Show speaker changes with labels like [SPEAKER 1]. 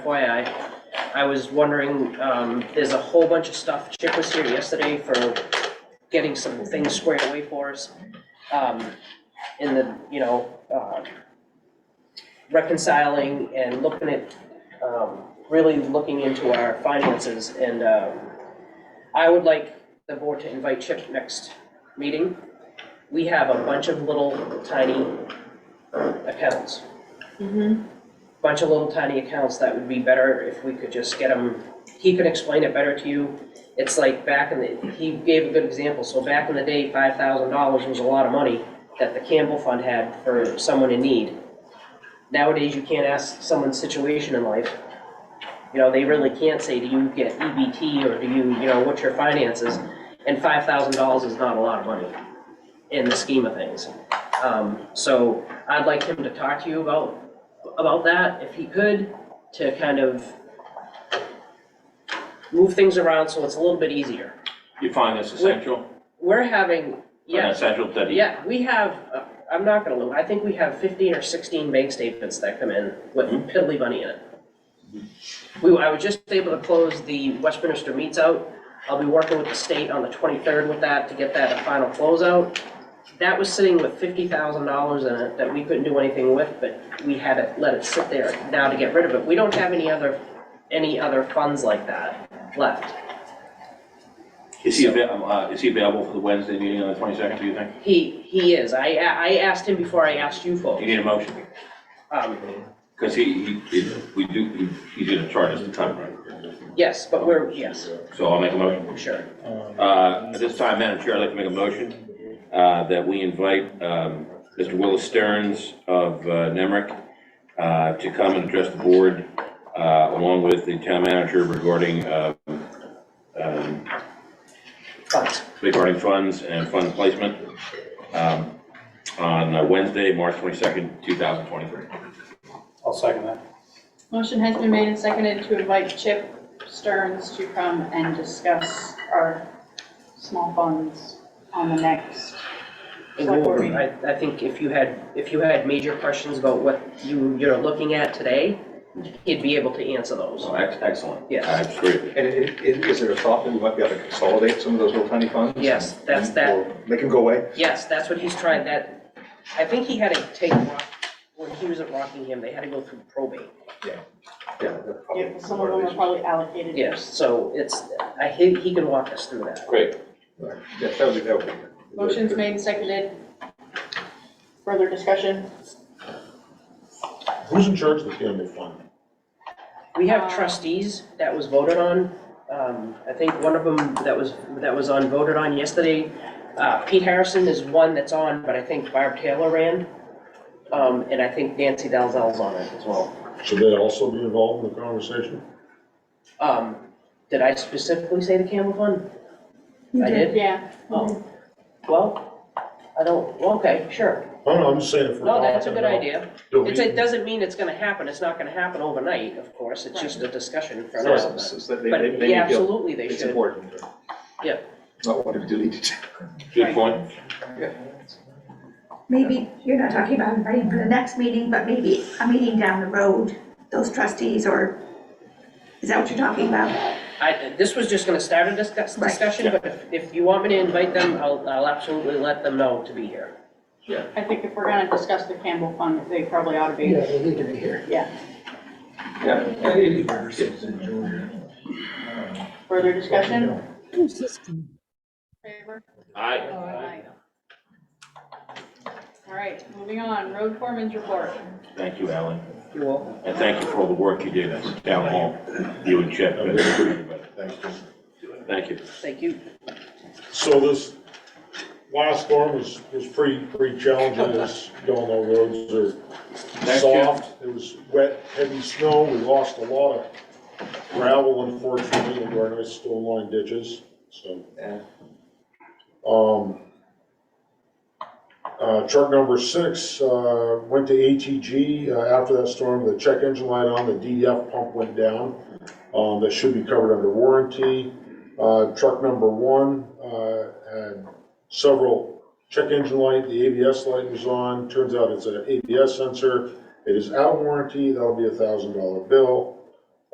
[SPEAKER 1] FYI, I was wondering, um, there's a whole bunch of stuff, Chip was here yesterday for getting some things squared away for us. Um, in the, you know, uh, reconciling and looking at, um, really looking into our finances and, um, I would like the board to invite Chip next meeting. We have a bunch of little tiny accounts
[SPEAKER 2] Mm-hmm.
[SPEAKER 1] bunch of little tiny accounts that would be better if we could just get them, he could explain it better to you. It's like back in the, he gave a good example, so back in the day, five thousand dollars was a lot of money that the Campbell Fund had for someone in need. Nowadays, you can't ask someone's situation in life. You know, they really can't say, do you get EBT or do you, you know, what's your finances? And five thousand dollars is not a lot of money in the scheme of things. Um, so I'd like him to talk to you about about that, if he could, to kind of move things around so it's a little bit easier.
[SPEAKER 3] You find this essential?
[SPEAKER 1] We're having, yeah,
[SPEAKER 3] Essential that he?
[SPEAKER 1] yeah, we have, uh, I'm not gonna lie, I think we have fifteen or sixteen bank statements that come in with piddly money in it. We, I was just able to close the Westminster meets out. I'll be working with the state on the twenty-third with that to get that a final closeout. That was sitting with fifty thousand dollars in it that we couldn't do anything with, but we had to let it sit there now to get rid of it. We don't have any other, any other funds like that left.
[SPEAKER 3] Is he avail, uh, is he available for the Wednesday meeting on the twenty-second, do you think?
[SPEAKER 1] He, he is. I, I asked him before I asked you
[SPEAKER 3] You
[SPEAKER 1] folks.
[SPEAKER 3] need a motion,
[SPEAKER 1] Um,
[SPEAKER 3] because he, he, we do, he- he's gonna charge us the time, right?
[SPEAKER 1] Yes, but we're, yes,
[SPEAKER 3] So I'll make a motion.
[SPEAKER 1] sure.
[SPEAKER 3] Uh, At this time, Madam Chair, I'd like to make a motion uh, that we invite um, Mr. Willis Stearns of uh, Nemrick uh, to come and address the board uh, along with the town manager regarding, uh, um,
[SPEAKER 1] But,
[SPEAKER 3] regarding funds and fund placement um, on uh, Wednesday, March 22nd, 2023.
[SPEAKER 4] I'll second that.
[SPEAKER 2] Motion has been made and seconded to invite Chip Stearns to come and discuss our small funds on the next. select board meeting.
[SPEAKER 1] I, I think if you had, if you had major questions about what you, you're looking at today, he'd be able to answer those.
[SPEAKER 3] So, ex- Excellent.
[SPEAKER 1] Yes.
[SPEAKER 3] I agree.
[SPEAKER 5] And i- i- is there a thought that we might be able to consolidate some of those little tiny funds?
[SPEAKER 1] Yes, that's that,
[SPEAKER 5] Or Make them go away?
[SPEAKER 1] yes, that's what he's trying, that, I think he had to take, Rock- when he was at Rockingham, they had to go through probate.
[SPEAKER 5] Yeah. that's probably
[SPEAKER 2] Yeah, some of them are
[SPEAKER 5] part
[SPEAKER 2] probably allocated.
[SPEAKER 1] Yes, so it's, I, he, he can walk us through that.
[SPEAKER 3] Great.
[SPEAKER 5] of the issue. Yeah, that would be, that would be. good.
[SPEAKER 2] Motion's made and seconded. Further discussion?
[SPEAKER 6] Who's in charge of the Campbell Fund?
[SPEAKER 1] We
[SPEAKER 2] Uh,
[SPEAKER 1] have trustees that was voted on. Um, I think one of them that was, that was on, voted on yesterday. Uh, Pete Harrison is one that's on, but I think Barb Taylor ran. Um, and I think Nancy Dalzell's on it as well.
[SPEAKER 6] Should they also be involved in the conversation?
[SPEAKER 1] Um, did I specifically say the Campbell Fund? I did?
[SPEAKER 2] Yeah.
[SPEAKER 1] Oh, well, I don't, well, okay, sure.
[SPEAKER 6] I don't know, Oh, I'm just saying if we're
[SPEAKER 1] No,
[SPEAKER 6] talking about.
[SPEAKER 1] that's a good idea.
[SPEAKER 6] Do
[SPEAKER 1] It's, it
[SPEAKER 6] we,
[SPEAKER 1] doesn't mean it's gonna happen. It's not gonna happen overnight, of course. It's just a discussion for
[SPEAKER 5] So-
[SPEAKER 1] us.
[SPEAKER 5] so- so they- they-
[SPEAKER 1] But,
[SPEAKER 5] they
[SPEAKER 1] yeah,
[SPEAKER 5] feel
[SPEAKER 1] absolutely, they
[SPEAKER 5] It's
[SPEAKER 1] should.
[SPEAKER 5] important.
[SPEAKER 1] Yeah.
[SPEAKER 5] Not what we deleted.
[SPEAKER 3] Good point.
[SPEAKER 7] Maybe, you're not talking about inviting for the next meeting, but maybe a meeting down the road, those trustees or, is that what you're talking about?
[SPEAKER 1] I, this was just gonna start a discuss,
[SPEAKER 7] Right.
[SPEAKER 1] discussion, but if, if you want me to invite them, I'll, I'll absolutely let them know to be here.
[SPEAKER 2] I think if we're gonna discuss the Campbell Fund, they probably ought to be. Yeah, they need to be here. Yeah.
[SPEAKER 5] Yeah. and it- it-
[SPEAKER 2] Further discussion? Favor?
[SPEAKER 3] Aye.
[SPEAKER 2] All right, moving on, road foreman's report.
[SPEAKER 3] Thank you, Alan.
[SPEAKER 1] You will?
[SPEAKER 3] And thank you for all the work you did at the town hall, you and Chip and everybody.
[SPEAKER 6] Thanks, Jim.
[SPEAKER 3] Thank you.
[SPEAKER 1] Thank you.
[SPEAKER 6] so this last storm was, was pretty, pretty challenging, as you all know, roads are
[SPEAKER 3] Thank you.
[SPEAKER 6] soft. It was wet, heavy snow, we lost a lot of gravel unfortunately into our nice stone line ditches, so.
[SPEAKER 5] Yeah.
[SPEAKER 6] Um, uh, truck number six, uh, went to ATG, uh, after that storm, the check engine light on, the DEF pump went down. Um, that should be covered under warranty. Uh, truck number one, uh, had several check engine light, the ABS light was on, turns out it's an ABS sensor. It is out of warranty, that'll be a thousand dollar bill.